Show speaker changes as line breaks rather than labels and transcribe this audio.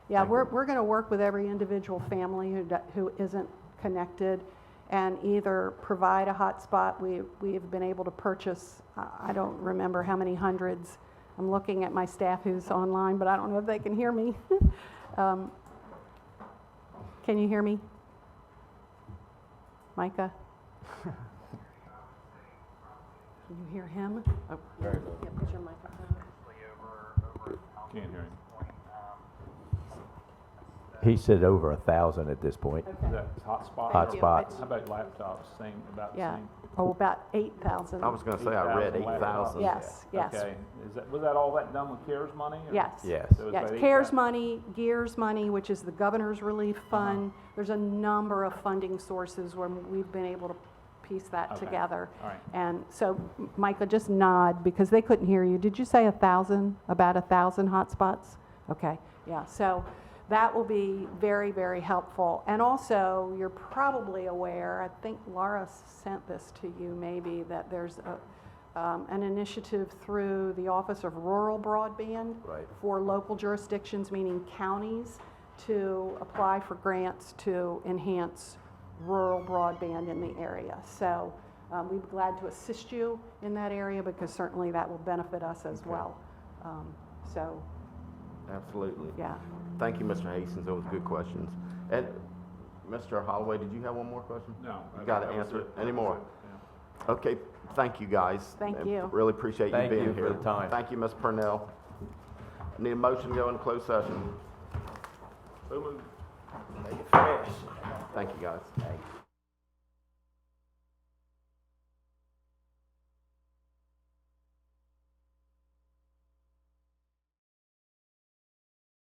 Yeah,
Thank
we're,
you.
we're going to work with every individual family who, do- who isn't connected and either provide a hotspot. We, we have been able to purchase, I I don't remember how many hundreds. I'm looking at my staff who's online, but I don't know if they can hear me. Um, Can you hear me? Micah? Can you hear him? Oh,
Very low.
Yeah, put your microphone.
Can't hear him.
He said over a thousand at this point.
Is that hotspot?
Thank you. Hotspots.
How about laptops, same, about the
Yeah,
same?
oh, about 8,000.
I was gonna say I read
8,000
eight
laptops.
thousand.
Yes, yes,
Okay, is that, was that all that done with CARES money? or-
yes.
Yes.
So it's
Yes,
about
CARES
8,000.
money, GEARS money, which is the Governor's Relief
Uh-huh.
Fund. There's a number of funding sources where we've been able to piece that
Okay.
together.
All right.
And so, M- Michael, just nod, because they couldn't hear you. Did you say a 1,000, about a 1,000 hotspots? Okay, yeah, so that will be very, very helpful. And also, you're probably aware, I think Laura sent this to you maybe, that there's a, um, an initiative through the Office of Rural Broadband
Right.
for local jurisdictions, meaning counties, to apply for grants to enhance rural broadband in the area. So um, we'd be glad to assist you in that area because certainly that will benefit us as well. Um, So,
Absolutely.
yeah.
Thank you, Mr. Hastings. Those were good questions. And Mr. Holloway, did you have one more question?
No.
You gotta
that was
answer
it.
it anymore.
Yeah.
Okay, thank you, guys.
Thank
And
you.
Really appreciate you
Thank
being
you for
here.
the time.
Thank you, Ms. Purnell. Need a motion to go into closed session.
So moved.
Thank you, guys.